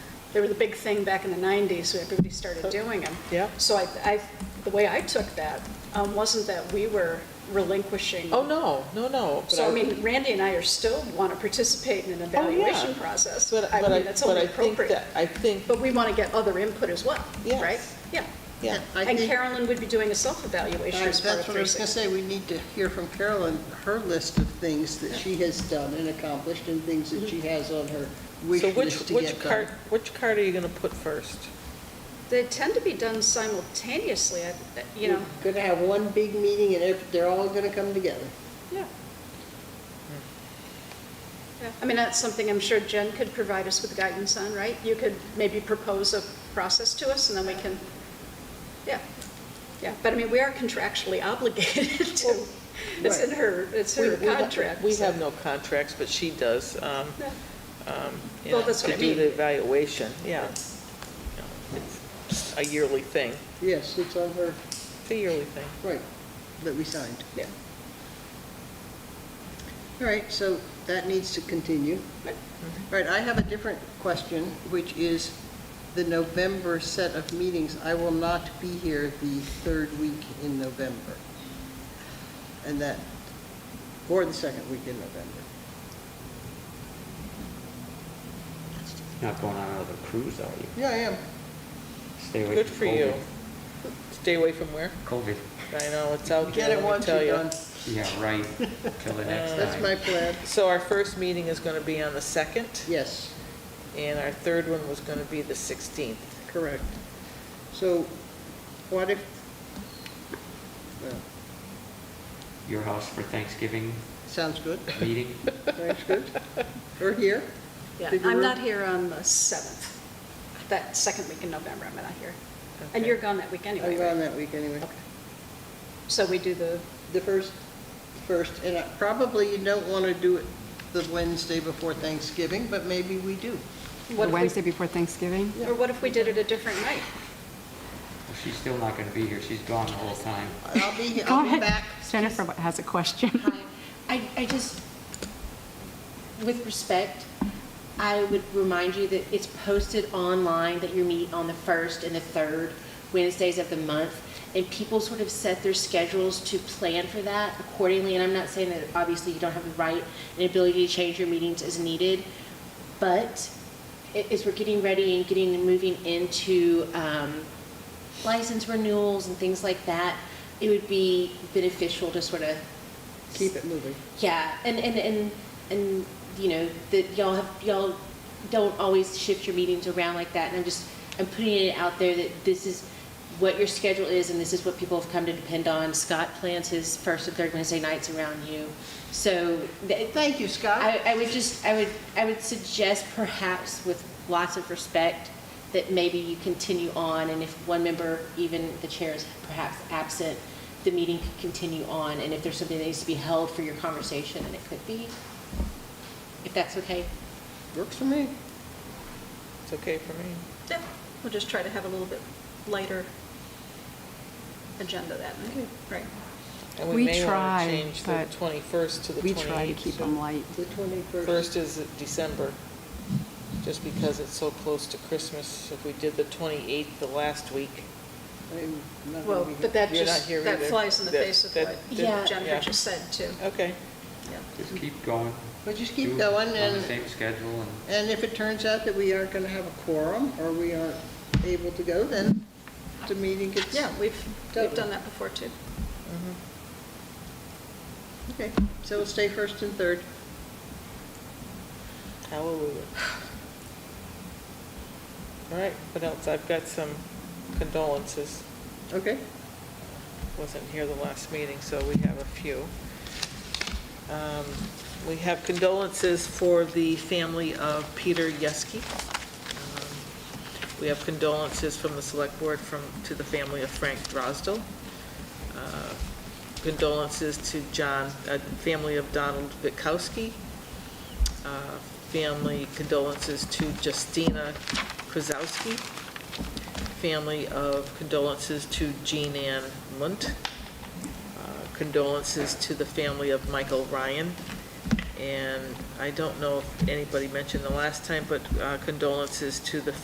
They were the big thing back in the 90s, where everybody started doing them. Oh. Yeah. So I, I, the way I took that um, wasn't that we were relinquishing. Oh, no, no, no. but So I mean, Randy and I are still want to participate in an Oh, yeah. evaluation process. But I but mean, that's but only I think appropriate. Oh, that- I think, But we want to get other input as well, Yes. right? Yeah. yeah. I And think- uh, Carolyn would be doing a self-evaluation That's as part of what I was 360. gonna say, we need to hear from Carolyn, her list of things that she has done and accomplished and things that she has on her wish So which, list to which get card, done. which card are you going to put first? They tend to be done simultaneously, I- you know. We're Gonna have one big meeting and ev- they're all gonna come together. Yeah. I mean, that's something I'm sure Jen could provide us with guidance on, right? You could maybe propose a process to us, and then we can, yeah, yeah. But I mean, we are contractually obligated to, it's in right. her, it's We- her we don't- contract. We so- have no contracts, but she does, um, Yeah. um, you Well, know, that's what to I do the mean. evaluation, yeah. No, It's A yearly thing, Yes, it's on her, it's a yearly thing. right, that we signed. Yeah. All right, so that needs to continue. Right. All right, I have a different question, which is the November set of meetings. I will not be here the third week in November. And that, or the second week in November. Not going on another cruise, are you? Yeah, I am. Stay away Good from for you. COVID. Stay away from where? COVID, I know, it's out Get there, it Oh, let once me tell you're you. done. yeah, right, till the next time. That's my plan. So our first meeting is going to be on the 2nd, Yes, and our third one was going to be the 16th. correct. So what if, well, Your house for Thanksgiving sounds good, meeting? sounds good. Or here? Yeah, Did you I'm re- not here on the 7th, that second week in November, I'm not here. And Okay. you're gone that week anyway, I'm Oh, gone right? that week anyway. So we do the, The first, first, and I- probably you don't want to do it the Wednesday before Thanksgiving, but maybe we do. what The if Wednesday we, before Thanksgiving? or what if we did it a different night? Well, She's still not gonna be here, she's gone the whole time. I'll be, Go I'll be ahead. back. Jennifer has a question. Hi. I, I just, with respect, I would remind you that it's posted online that you meet on the first and the third Wednesdays of the month, and people sort of set their schedules to plan for that accordingly, and I'm not saying that obviously you don't have the right and ability to change your meetings as needed, but a- as we're getting ready and getting and moving into um, license renewals and things like that, it would be beneficial to sort of Keep it moving. yeah, and and and and you know that y'all have y'all don't always shift your meetings around like that. And I'm just I'm putting it out there that this is what your schedule is, and this is what people have come to depend on. Scott plans his first and third Wednesday nights around you, so th- Thank you, Scott. I, I would just I would I would suggest perhaps with lots of respect that maybe you continue on, and if one member, even the chair, is perhaps absent, the meeting could continue on, and if there's something that needs to be held for your conversation, and it could be, if that's okay. Works for me. It's okay for me. Yeah, we'll just try to have a little bit lighter agenda that night, right? And We we may want tried, to change the but 21st to the 28th. We try to keep them light. The 21st. First is December, just because it's so close to Christmas. If we did the 28th the last week, I'm not Well, gonna but be here. that You're not just, here that either. flies in the That- face of that- what Yeah. Jennifer yeah. Oh. just said, too. okay. Yeah. Just keep going. But just Do keep it going, On the and, same schedule, and and if it turns out that we aren't going to have a quorum, or we aren't able to go, then the meeting gets. Yeah, we've, we've Totally. done that before, too. Okay, so we'll stay first and third. Hallelujah. All right, what else? I've got some condolences. Okay? Wasn't here the last meeting, so we have a few. Um, We have condolences for the family of Peter Yeske. Um, We have condolences from the Select Board from, to the family of Frank Drosdell. Uh, Condolences to John, uh, family of Donald Witkowski. Uh, Family condolences to Justina Krasowski. Family of condolences to Jean Ann Munt. Uh, Condolences to the family of Michael Ryan. And I don't know if anybody mentioned the last time, but uh, condolences to the